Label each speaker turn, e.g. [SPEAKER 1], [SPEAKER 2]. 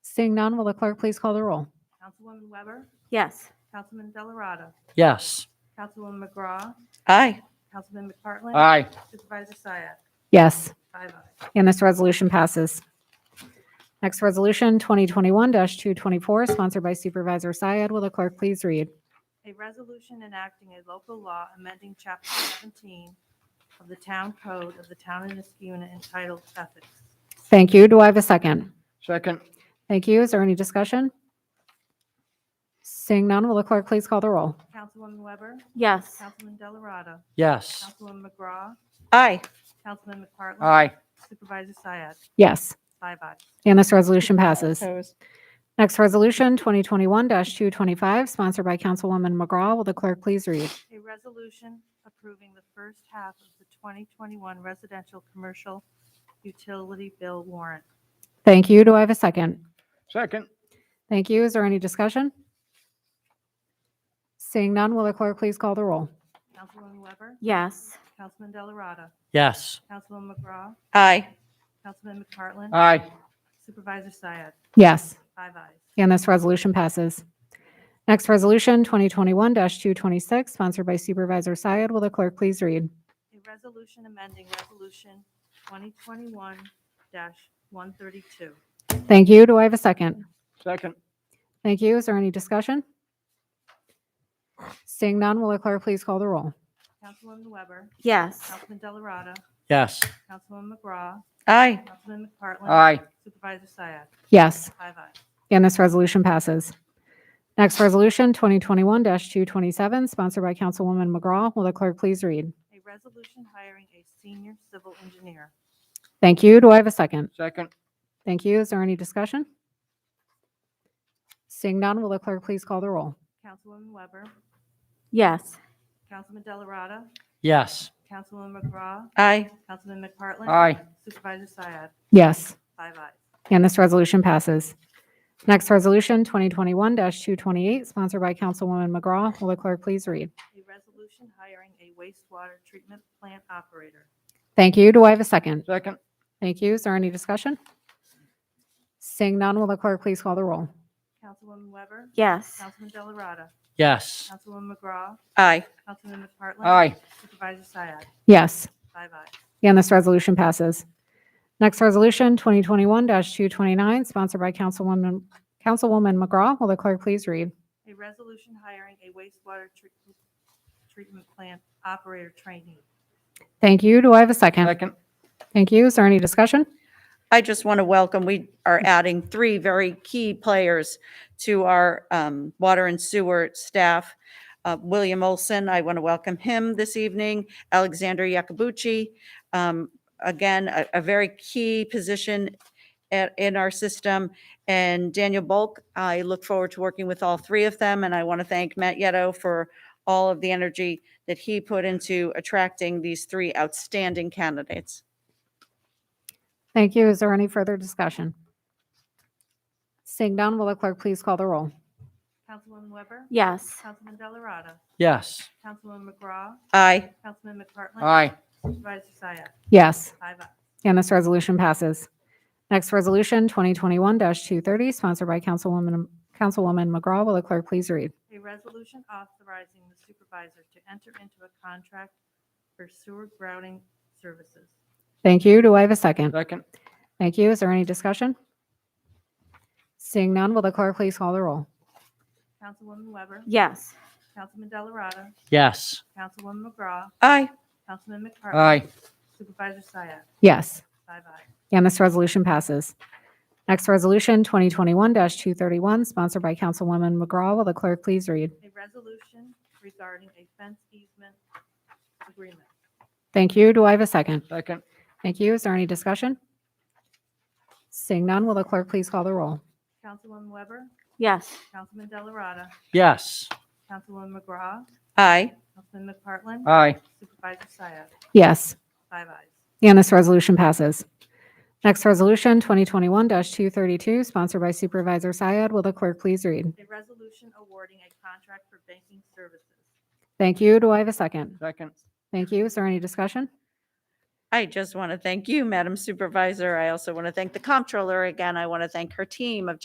[SPEAKER 1] Seeing none, will the clerk please call the roll?
[SPEAKER 2] Councilwoman Weber,
[SPEAKER 3] Yes.
[SPEAKER 2] Councilman Delarada,
[SPEAKER 4] Yes.
[SPEAKER 2] Councilwoman McGraw,
[SPEAKER 3] Aye.
[SPEAKER 2] Councilman McPartlin.
[SPEAKER 4] Aye.
[SPEAKER 2] Supervisor Syed,
[SPEAKER 1] Yes,
[SPEAKER 2] five ayes.
[SPEAKER 1] and this resolution passes. Next resolution, 2021-224, sponsored by Supervisor Syed. Will the clerk please read?
[SPEAKER 2] A resolution enacting a local law amending Chapter 17 of the Town Code of the Town of Niskuna entitled Ethics.
[SPEAKER 1] Thank you. Do I have a second?
[SPEAKER 4] Second.
[SPEAKER 1] Thank you. Is there any discussion? Seeing none, will the clerk please call the roll?
[SPEAKER 2] Councilwoman Weber,
[SPEAKER 3] Yes.
[SPEAKER 2] Councilman Delarada,
[SPEAKER 4] Yes.
[SPEAKER 2] Councilwoman McGraw,
[SPEAKER 3] Aye.
[SPEAKER 2] Councilman McPartlin.
[SPEAKER 4] Aye.
[SPEAKER 2] Supervisor Syed,
[SPEAKER 1] Yes,
[SPEAKER 2] five ayes.
[SPEAKER 1] and this resolution passes.
[SPEAKER 3] Opposed.
[SPEAKER 1] Next resolution, 2021-225, sponsored by Councilwoman McGraw. Will the clerk please read?
[SPEAKER 2] A resolution approving the first half of the 2021 residential commercial utility bill warrant.
[SPEAKER 1] Thank you. Do I have a second?
[SPEAKER 4] Second.
[SPEAKER 1] Thank you. Is there any discussion? Seeing none, will the clerk please call the roll?
[SPEAKER 2] Councilwoman Weber,
[SPEAKER 3] Yes.
[SPEAKER 2] Councilman Delarada,
[SPEAKER 4] Yes.
[SPEAKER 2] Councilwoman McGraw,
[SPEAKER 3] Aye.
[SPEAKER 2] Councilman McPartlin.
[SPEAKER 4] Aye.
[SPEAKER 2] Supervisor Syed,
[SPEAKER 1] Yes,
[SPEAKER 2] five ayes.
[SPEAKER 1] and this resolution passes. Next resolution, 2021-226, sponsored by Supervisor Syed. Will the clerk please read?
[SPEAKER 2] A resolution amending Resolution 2021-132.
[SPEAKER 1] Thank you. Do I have a second?
[SPEAKER 4] Second.
[SPEAKER 1] Thank you. Is there any discussion? Seeing none, will the clerk please call the roll?
[SPEAKER 2] Councilwoman Weber,
[SPEAKER 3] Yes.
[SPEAKER 2] Councilman Delarada,
[SPEAKER 4] Yes.
[SPEAKER 2] Councilwoman McGraw,
[SPEAKER 3] Aye.
[SPEAKER 2] Councilman McPartlin.
[SPEAKER 4] Aye.
[SPEAKER 2] Supervisor Syed,
[SPEAKER 1] Yes,
[SPEAKER 2] five ayes.
[SPEAKER 1] and this resolution passes. Next resolution, 2021-227, sponsored by Councilwoman McGraw. Will the clerk please read?
[SPEAKER 2] A resolution hiring a senior civil engineer.
[SPEAKER 1] Thank you. Do I have a second?
[SPEAKER 4] Second.
[SPEAKER 1] Thank you. Is there any discussion? Seeing none, will the clerk please call the roll?
[SPEAKER 2] Councilwoman Weber,
[SPEAKER 3] Yes.
[SPEAKER 2] Councilman Delarada,
[SPEAKER 4] Yes.
[SPEAKER 2] Councilwoman McGraw,
[SPEAKER 3] Aye.
[SPEAKER 2] Councilman McPartlin.
[SPEAKER 4] Aye.
[SPEAKER 2] Supervisor Syed,
[SPEAKER 1] Yes,
[SPEAKER 2] five ayes.
[SPEAKER 1] and this resolution passes. Next resolution, 2021-228, sponsored by Councilwoman McGraw. Will the clerk please read?
[SPEAKER 2] A resolution hiring a wastewater treatment plant operator.
[SPEAKER 1] Thank you. Do I have a second?
[SPEAKER 4] Second.
[SPEAKER 1] Thank you. Is there any discussion? Seeing none, will the clerk please call the roll?
[SPEAKER 2] Councilwoman Weber,
[SPEAKER 3] Yes.
[SPEAKER 2] Councilman Delarada,
[SPEAKER 4] Yes.
[SPEAKER 2] Councilwoman McGraw,
[SPEAKER 3] Aye.
[SPEAKER 2] Councilman McPartlin.
[SPEAKER 4] Aye.
[SPEAKER 2] Supervisor Syed,
[SPEAKER 1] Yes,
[SPEAKER 2] five ayes.
[SPEAKER 1] and this resolution passes. Next resolution, 2021-229, sponsored by Councilwoman, Councilwoman McGraw. Will the clerk please read?
[SPEAKER 2] A resolution hiring a wastewater treat- treatment plant operator trainee.
[SPEAKER 1] Thank you. Do I have a second?
[SPEAKER 4] Second.
[SPEAKER 1] Thank you. Is there any discussion?
[SPEAKER 5] I just want to welcome, we are adding three very key players to our um, water and sewer staff. Uh, William Olson, I want to welcome him this evening. Alexander Yakabuchi, um, again, a- a very key position at- in our system. And Daniel Bulk, I look forward to working with all three of them. And I want to thank Matt Yetto for all of the energy that he put into attracting these three outstanding candidates.
[SPEAKER 1] Thank you. Is there any further discussion? Seeing none, will the clerk please call the roll?
[SPEAKER 2] Councilwoman Weber,
[SPEAKER 3] Yes.
[SPEAKER 2] Councilman Delarada,
[SPEAKER 4] Yes.
[SPEAKER 2] Councilwoman McGraw,
[SPEAKER 5] Aye.
[SPEAKER 2] Councilman McPartlin.
[SPEAKER 4] Aye.
[SPEAKER 2] Supervisor Syed,
[SPEAKER 1] Yes,
[SPEAKER 2] five ayes.
[SPEAKER 1] and this resolution passes. Next resolution, 2021-230, sponsored by Councilwoman, Councilwoman McGraw. Will the clerk please read?
[SPEAKER 2] A resolution authorizing the supervisor to enter into a contract for sewer grouting services.
[SPEAKER 1] Thank you. Do I have a second?
[SPEAKER 4] Second.
[SPEAKER 1] Thank you. Is there any discussion? Seeing none, will the clerk please call the roll?
[SPEAKER 2] Councilwoman Weber,
[SPEAKER 3] Yes.
[SPEAKER 2] Councilman Delarada,
[SPEAKER 4] Yes.
[SPEAKER 2] Councilwoman McGraw,
[SPEAKER 5] Aye.
[SPEAKER 2] Councilman McPartlin.
[SPEAKER 4] Aye.
[SPEAKER 2] Supervisor Syed,
[SPEAKER 1] Yes.
[SPEAKER 2] five ayes.
[SPEAKER 1] And this resolution passes. Next resolution, 2021-231, sponsored by Councilwoman McGraw. Will the clerk please read?
[SPEAKER 2] A resolution regarding a fence easement agreement.
[SPEAKER 1] Thank you. Do I have a second?
[SPEAKER 4] Second.
[SPEAKER 1] Thank you. Is there any discussion? Seeing none, will the clerk please call the roll?
[SPEAKER 2] Councilwoman Weber,
[SPEAKER 3] Yes.
[SPEAKER 2] Councilman Delarada,
[SPEAKER 4] Yes.
[SPEAKER 2] Councilwoman McGraw,
[SPEAKER 5] Aye.
[SPEAKER 2] Councilman McPartlin.
[SPEAKER 4] Aye.
[SPEAKER 2] Supervisor Syed,
[SPEAKER 1] Yes,
[SPEAKER 2] five ayes.
[SPEAKER 1] and this resolution passes. Next resolution, 2021-232, sponsored by Supervisor Syed. Will the clerk please read?
[SPEAKER 2] A resolution awarding a contract for banking services.
[SPEAKER 1] Thank you. Do I have a second?
[SPEAKER 4] Second.
[SPEAKER 1] Thank you. Is there any discussion?
[SPEAKER 5] I just want to thank you, Madam Supervisor. I also want to thank the comptroller again. I want to thank her team of